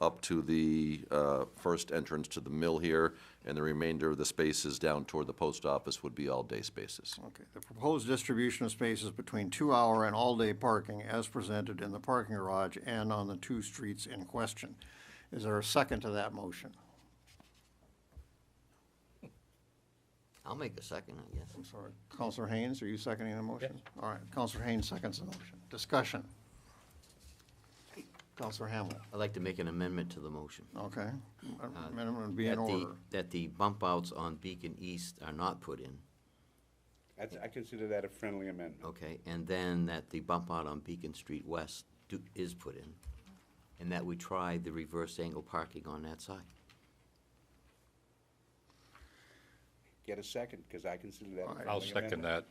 up to the uh, first entrance to the mill here, and the remainder of the spaces down toward the post office would be all-day spaces. Okay, the proposed distribution of spaces between two-hour and all-day parking as presented in the parking garage and on the two streets in question. Is there a second to that motion? I'll make a second, I guess. I'm sorry, Counselor Haynes, are you seconding the motion? All right, Counselor Haynes seconds the motion. Discussion. Counselor Hamel, I'd like to make an amendment to the motion. okay. Minimum would be that in Um, the- order. That the bump outs on Beacon East are not put in, That's, I consider that a friendly amendment. okay? And then that the bump out on Beacon Street West do- is put in, and that we try the reverse angle parking on that side. Get a second, because I consider that. a I'll friendly second amendment.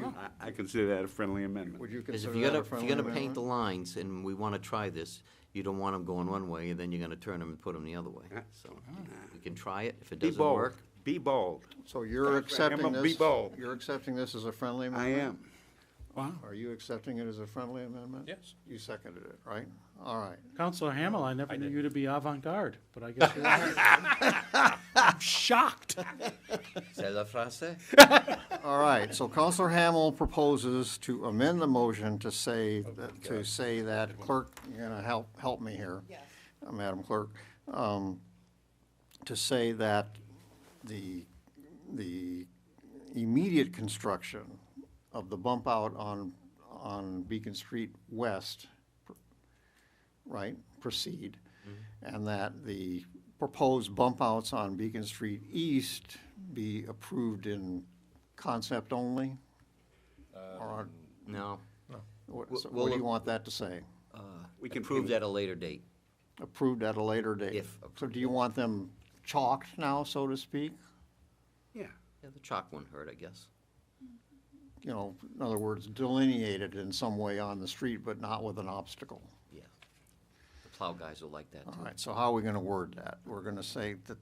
that. I I consider that a friendly amendment. Would you Because consider if that a you're gonna, if friendly you're gonna paint the amendment? lines, and we wanna try this, you don't want them going one way, and then you're gonna turn them and put them the other Ah, way. So, we can try it, if it Be doesn't bold, work, be bold. So you're accepting Hamel, be this, bold. you're accepting this as a friendly I amendment? am. Are you accepting it as a friendly amendment? Yes. You seconded it, right? All right. Counselor Hamel, I never knew you to be avant-garde, but I guess you are. Shocked. c'est la phrase? All right, so Counselor Hamel proposes to amend the motion to say, that- to say that clerk, you're gonna help, help me here. uh, Madam Clerk, um, to say that the, the immediate construction of the bump out on, on Beacon Street West, right, proceed, Mm-hmm. and that the proposed bump outs on Beacon Street East be approved in concept only? Or, No, what so Um, we'll- what do you want that to say? We can uh, approve that at a later date. Approved at a later date? If So do you want them chalked now, so to speak? Yeah, Yeah, the chalk one hurt, I guess. You know, in other words, delineated in some way on the street, but not with an obstacle? Yeah. The plow guys will like that, too. All right, so how are we gonna word that? We're gonna say that,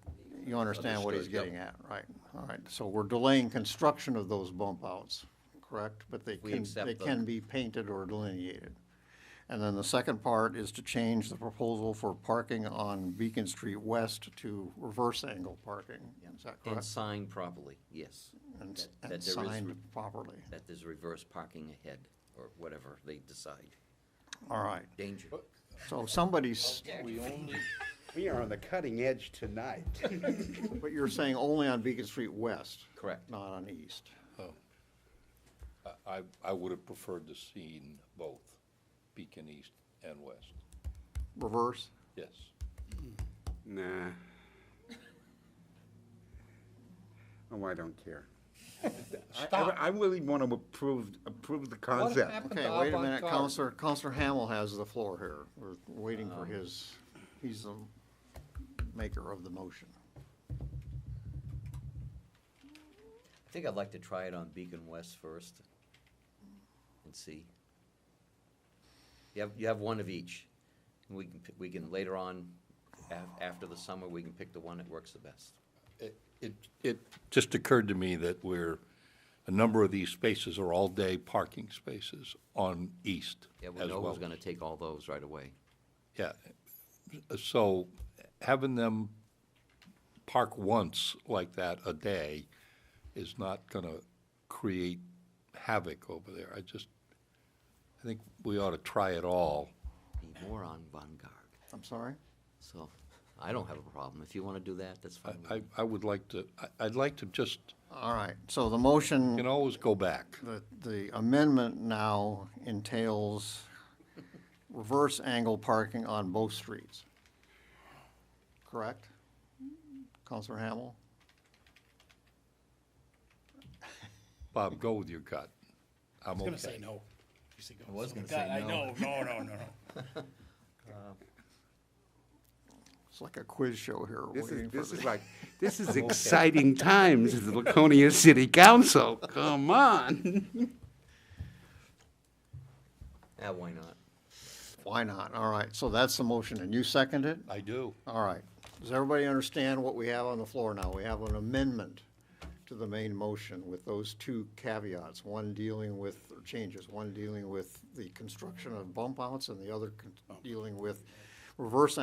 you understand what he's Understood, getting at, right? All right, so we're delaying construction of those bump outs, correct? But they We can, accept they the- can be painted or delineated. And then the second part is to change the proposal for parking on Beacon Street West to reverse angle parking. Is that And correct? signed properly, yes. And s- That- that there And is signed re- properly. That there's reverse parking ahead, or whatever they decide. All right, Danger. so somebody's, we are on the cutting edge tonight. but you're saying only on Beacon Street West? Correct. Not on East? I, I would have preferred to seen both Beacon East and West. Reverse? Yes. Nah. Oh, I don't care. I- I- Stop. I really want to approve, approve the concept. happened? Okay, to wait a minute, avant-garde. Counselor, Counselor Hamel has the floor here. We're waiting Um, for his, he's the maker of the motion. I think I'd like to try it on Beacon West first and see. You have, you have one of each. And we can, pi- we can later on, af- after the summer, we can pick the one that works the best. It- It, it just occurred to me that we're, a number of these spaces are all-day parking spaces on East Yeah, we as know well. who's gonna take all those right away. Yeah. So having them park once like that a day is not going to create havoc over there. I just, I think we ought to try it all. Be more on vanguard. I'm sorry? So, I don't have a problem. If you wanna do that, that's fine. with I, me. I would like to, I- I'd like to just, All right, so the you motion, can always go back. the, the amendment now entails reverse angle parking on both streets. Correct? Counselor Hamel? Bob, go with your gut. I'm gonna say okay. no. You say go. I was So, gonna God, say I no. know, no, no, no, no. It's like a quiz show here, This waiting is, for this is the, like, this is exciting times at the Laconia City Council. Come on. Yeah, Ah, why not? why not? All right, so that's the motion, and you second it? I do. All right. Does everybody understand what we have on the floor now? We have an amendment to the main motion with those two caveats, one dealing with changes, one dealing with the construction of bump outs and the other con- dealing with reverse